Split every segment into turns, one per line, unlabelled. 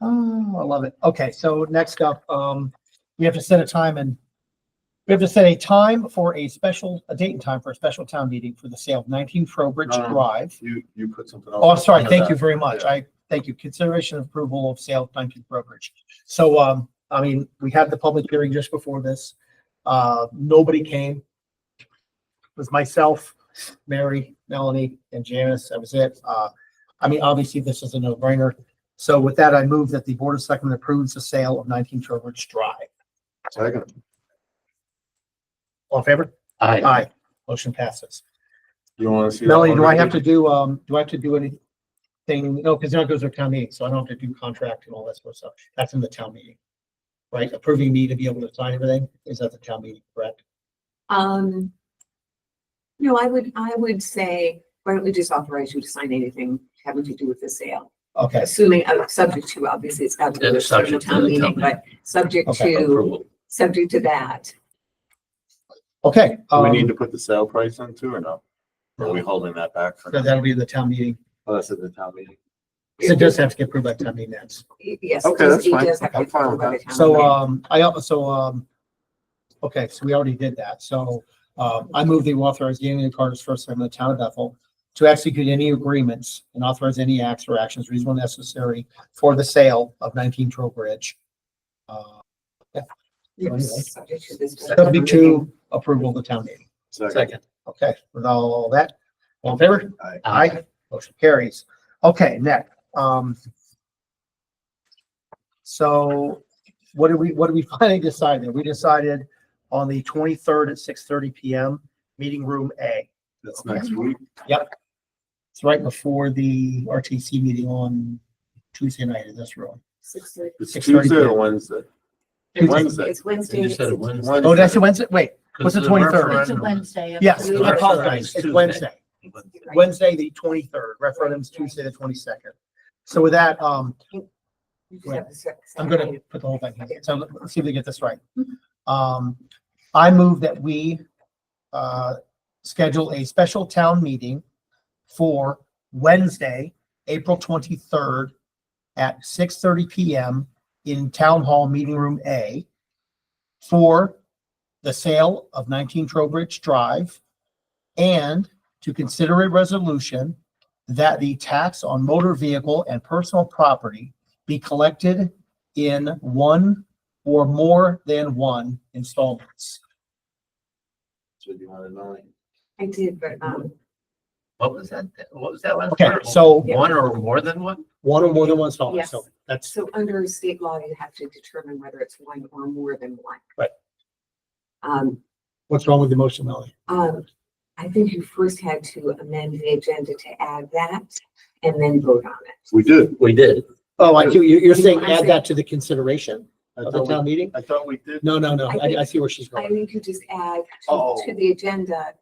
Oh, I love it. Okay, so next up, um, we have to set a time and we have to set a time for a special, a date and time for a special town meeting for the sale of nineteen Trowbridge
No.
Drive.
You, you put something else.
Oh, I'm sorry.
under
Thank you
that.
very much. I, thank you. Consideration of approval of sale of nineteen brokerage. So, um, I mean, we had the public hearing just before this. Uh, nobody came. It was myself, Mary, Melanie, and Janice. That was it. Uh, I mean, obviously, this is a no-brainer. So with that, I move that the Board of Selectmen approves the sale of nineteen Trowbridge Drive.
Second.
All in favor?
Aye.
Aye. Motion passes.
You wanna see? that
Melanie, do I have to
wonderful-
do, um, do I have to do anything? No, because now it goes to town meeting, so I don't have to do contract and all that sort of stuff. That's in the town meeting. Right? Approving me to be able to sign everything is at the town meeting, correct?
Um. No, I would, I would say, why don't we just authorize you to sign anything having to do with the sale?
Okay,
Assuming, uh, subject to, obviously, it's got to
Yeah,
be a certain
subject to the
town meeting,
town meeting.
but subject
Okay.
to,
Approval.
subject to that.
okay.
Do we need
Um,
to put the sale price in too or no? Or Are we holding that back for?
so that'll be in the town meeting.
Oh, that's at the town meeting.
So it does have to get approved by town meeting minutes.
Y- Yes.
Okay,
it does-
that's
it
fine.
does have to
I'm
be
fine with
approved by
that.
the town
So,
meeting.
um, I, al- so, um, okay, so we already did that. So, um, I move the authorize Daniel Carter's first time in the town of Bethel to execute any agreements and authorize any acts or actions reasonable and necessary for the sale of nineteen Trowbridge. Uh, so anyway.
Subject to this.
Subject to approval of the town meeting.
Second.
Okay, with all that, all in favor?
Aye.
Aye. Motion carries. Okay, next, um. So what did we, what did we finally decide? We decided on the twenty-third at six thirty PM, meeting room A.
That's next week.
It's right before the RTC meeting on Tuesday night in this room.
Six thirty.
It's
6:30.
Tuesday or Wednesday? Wednesday.
It's Wednesday.
You said it Wednesday.
Wednesday.
Oh, that's a Wednesday? Wait, What's the 23rd?
It's a
referendum.
Wednesday. of
yes,
the-
I apologize. It's
Tuesday.
Wednesday. Wednesday, the twenty-third, referendum's Tuesday, the twenty-second. So with that, um,
You just have to set-
I'm gonna put the whole thing here, so let's see if we get this right. Um, I move that we, uh, schedule a special town meeting for Wednesday, April twenty-third at six thirty PM in Town Hall Meeting Room A for the sale of nineteen Trowbridge Drive and to consider a resolution that the tax on motor vehicle and personal property be collected in one or more than one installments.
So do you wanna know?
I did, but, um,
What was that? What was that last?
Okay,
part?
so
One or more than one?
one or more than one installment, so
Yes.
that's,
So under state law, you have to determine whether it's one or more than one.
Right.
Um,
what's wrong with the motion, Melanie?
um, I think you first had to amend the agenda to add that and then vote on it.
We did.
We did.
Oh, I, you, you're saying
I
add
see.
that to the consideration
I
of the
thought we-
town meeting?
I thought we did.
No, no, no,
I
I,
think-
I see where she's
I
going.
think you just add to,
Oh.
to the agenda.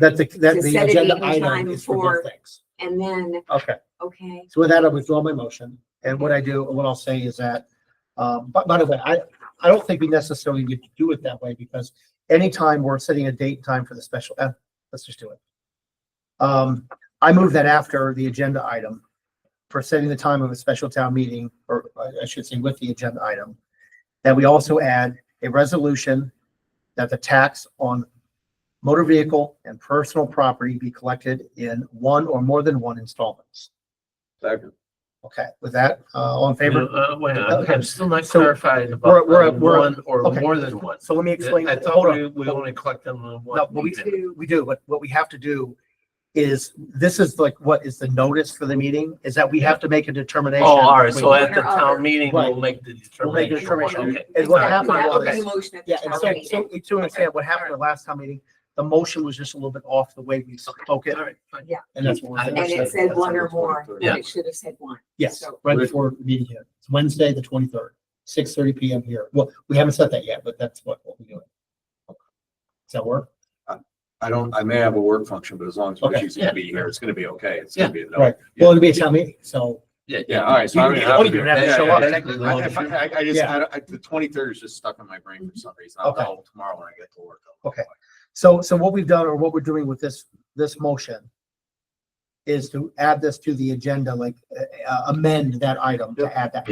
That the, that
To
the
set a
agenda
date and
item
time
is for both
for-
things.
And then,
Okay.
okay,
So with that, I withdraw my motion. And what I do, what I'll say is that, um, but by the way, I, I don't think we necessarily need to do it that way because anytime we're setting a date and time for the special, eh, let's just do it. Um, I move that after the agenda item for setting the time of a special town meeting, or I- I should say with the agenda item, that we also add a resolution that the tax on motor vehicle and personal property be collected in one or more than one installments.
Second.
Okay, with that, uh, all in favor?
Uh, wait, I'm I'm still not
So-
clarified
We're-
about
we're-
the
we're-
one or
okay.
more than one.
So let me explain.
I
hold
thought
on.
we, we only collect them on one.
No, but we
meeting.
do, we do, but what we have to do is, this is like, what is the notice for the meeting, is that we have to make a determination.
Oh, all right. So
between-
at the town meeting,
Right.
we'll make the
We'll make a
determination.
determination.
Okay.
And what
Sorry.
happened
that
was-
was the motion at the
Yeah, and
town
so,
meeting.
so, so understand what happened at the last town meeting, the motion was just a little bit off the way we spoke it,
All right, fine.
and that's what we're.
And
And
doing.
it said one or more,
Yeah.
and it should have said one.
Yes,
So-
right before the meeting here. It's Wednesday, the twenty-third, six thirty PM here. Well, we haven't said that yet, but that's what we'll be doing. Does that work?
I don't, I may have a work function, but as long as
Okay.
she's gonna be here, it's gonna be okay. It's gonna be. no-
Right.
Yeah.
Well, it'll be a town meeting, so.
Yeah,
Yeah, all right. So I
You-
don't
you
have
don't
to
even
do it.
have to
Yeah,
show
yeah,
up.
yeah. I- if I, I- I just,
Yeah.
I don't- I- the twenty-third is just stuck in my brain for some reason. I'll
Okay.
tell tomorrow when I get to work.
Okay. So, so what we've done or what we're doing with this, this motion is to add this to the agenda, like uh, amend uh, that item to add that.